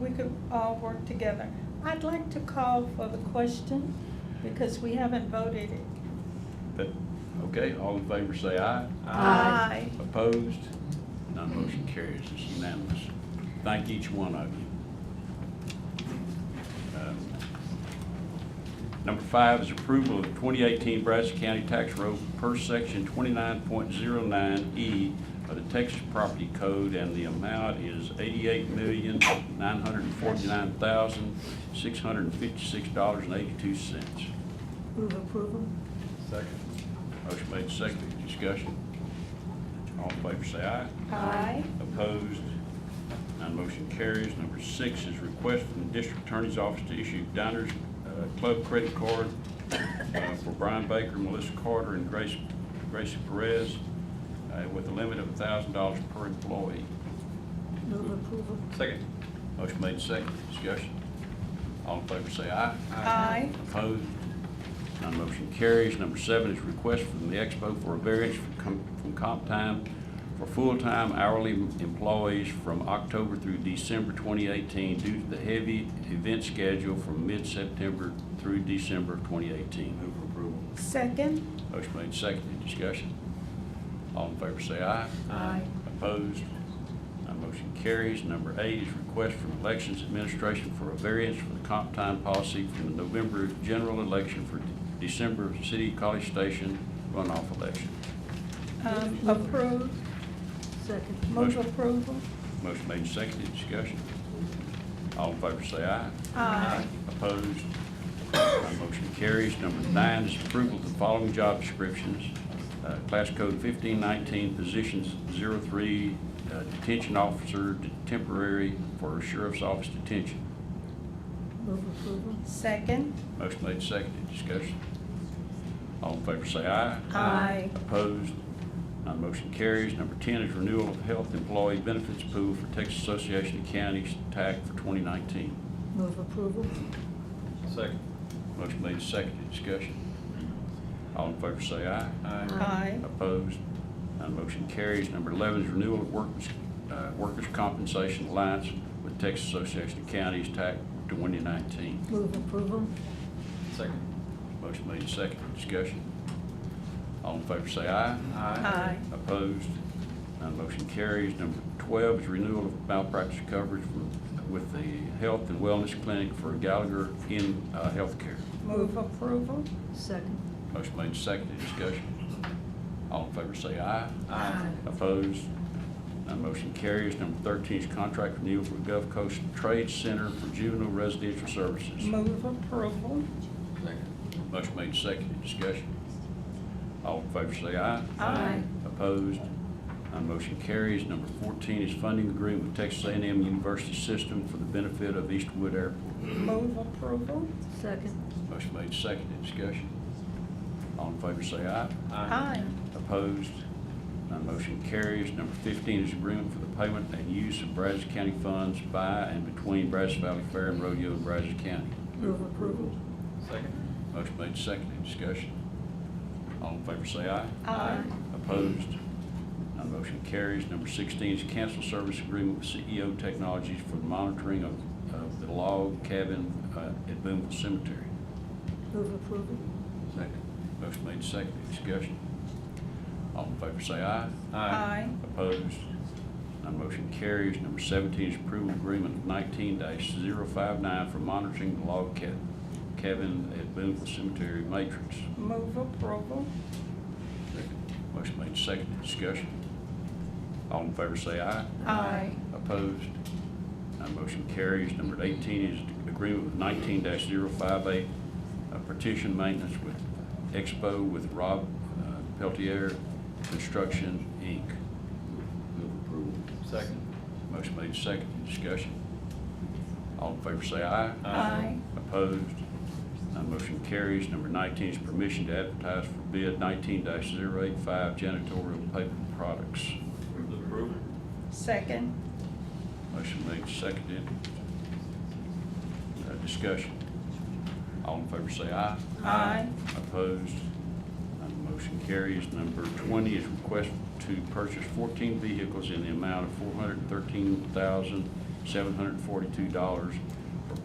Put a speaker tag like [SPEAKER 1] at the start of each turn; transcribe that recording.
[SPEAKER 1] could all work together. I'd like to call for the question because we haven't voted it.
[SPEAKER 2] But, okay, all in favor say aye.
[SPEAKER 1] Aye.
[SPEAKER 2] Opposed? None motion carries. It's unanimous. Thank each one of you. Um, Number five is approval of 2018 Brazos County Tax Road per section 29.09E E of the Texas Property Code, and the amount is $88,949,656.82.
[SPEAKER 3] Move approval?
[SPEAKER 2] Second. Motion made second, discussion. All in favor say aye.
[SPEAKER 1] Aye.
[SPEAKER 2] Opposed? None motion carries. Number six is request from the district attorney's office to issue Diners uh, Club credit card uh, for Brian Baker, Melissa Carter, and Grace, Gracie Perez uh, with a limit of thousand dollars per employee.
[SPEAKER 3] Move approval?
[SPEAKER 2] Second. Motion made second, discussion. All in favor say aye.
[SPEAKER 1] Aye.
[SPEAKER 2] Opposed? None motion carries. Number seven is request from the Expo for a variance from com- from comp time for full-time hourly employees from October through December 2018 due to the heavy event schedule from mid-September through December 2018. Move for approval.
[SPEAKER 1] Second?
[SPEAKER 2] Motion made, seconded, discussion. All in favor say aye.
[SPEAKER 3] Aye.
[SPEAKER 2] Opposed? None motion carries. Number eight is request from Elections Administration for a variance for the comp time policy from the November general election for December City College Station runoff election.
[SPEAKER 1] Um, approved,
[SPEAKER 3] Second?
[SPEAKER 1] move
[SPEAKER 2] Motion.
[SPEAKER 1] approval?
[SPEAKER 2] Motion made, seconded, discussion. All in favor say aye.
[SPEAKER 1] Aye.
[SPEAKER 2] Opposed? None motion carries. Number nine is approval of the following job descriptions. Uh, Class code 1519, positions 03, uh, detention officer to temporary for sheriff's office detention.
[SPEAKER 3] Move approval?
[SPEAKER 1] Second?
[SPEAKER 2] Motion made, seconded, discussion. All in favor say aye.
[SPEAKER 1] Aye.
[SPEAKER 2] Opposed? None motion carries. Number 10 is renewal of health employee benefits pool for Texas Association of Counties TAC for 2019.
[SPEAKER 3] Move approval?
[SPEAKER 4] Second.
[SPEAKER 2] Motion made, seconded, discussion. All in favor say aye.
[SPEAKER 1] Aye.
[SPEAKER 2] Opposed? None motion carries. Number 11 is renewal of workers' uh, workers' compensation alliance with Texas Association of Counties TAC 2019.
[SPEAKER 3] Move approval?
[SPEAKER 4] Second.
[SPEAKER 2] Motion made, seconded, discussion. All in favor say aye.
[SPEAKER 1] Aye.
[SPEAKER 2] Opposed? None motion carries. Number 12 is renewal of malpractice coverage for- with the Health and Wellness Clinic for Gallagher in uh, Healthcare.
[SPEAKER 1] Move approval?
[SPEAKER 3] Second?
[SPEAKER 2] Motion made, seconded, discussion. All in favor say aye.
[SPEAKER 4] Aye.
[SPEAKER 2] Opposed? None motion carries. Number 13 is contract renewal for Gulf Coast Trade Center for Juvenile Residential Services.
[SPEAKER 1] Move approval?
[SPEAKER 4] Second.
[SPEAKER 2] Motion made, seconded, discussion. All in favor say aye.
[SPEAKER 1] Aye.
[SPEAKER 2] Opposed? None motion carries. Number 14 is funding agreement with Texas a and m University System for the benefit of Eastwood Airport.
[SPEAKER 1] Move approval?
[SPEAKER 3] Second?
[SPEAKER 2] Motion made, seconded, discussion. All in favor say aye.
[SPEAKER 1] Aye.
[SPEAKER 2] Opposed? None motion carries. Number 15 is agreement for the payment and use of Brazos County funds by and between Brazos Valley Fair and Rodeo in Brazos County.
[SPEAKER 3] Move approval?
[SPEAKER 4] Second.
[SPEAKER 2] Motion made, seconded, discussion. All in favor say aye.
[SPEAKER 1] Aye.
[SPEAKER 2] Opposed? None motion carries. Number 16 is cancel service agreement with CEO Technologies for the monitoring of of the log cabin uh, at Boonville Cemetery.
[SPEAKER 3] Move approval?
[SPEAKER 2] Second. Motion made, seconded, discussion. All in favor say aye.
[SPEAKER 1] Aye.
[SPEAKER 2] Opposed? None motion carries. Number 17 is approval agreement 19-059 for monitoring the log ca- cabin at Boonville Cemetery Matrix.
[SPEAKER 1] Move approval?
[SPEAKER 2] Motion made, seconded, discussion. All in favor say aye.
[SPEAKER 1] Aye.
[SPEAKER 2] Opposed? None motion carries. Number 18 is agreement with 19-058, uh, partition maintenance with Expo with Rob uh, Peltier Construction, Inc. Move approval.
[SPEAKER 4] Second.
[SPEAKER 2] Motion made second, discussion. All in favor say aye.
[SPEAKER 1] Aye.
[SPEAKER 2] Opposed? None motion carries. Number 19 is permission to advertise for bid 19-085 janitorial paper products.
[SPEAKER 4] Move approval.
[SPEAKER 1] Second?
[SPEAKER 2] Motion made seconded. Uh, Discussion. All in favor say aye.
[SPEAKER 1] Aye.
[SPEAKER 2] Opposed? None motion carries. Number 20 is request to purchase 14 vehicles in the amount of seven hundred and forty-two dollars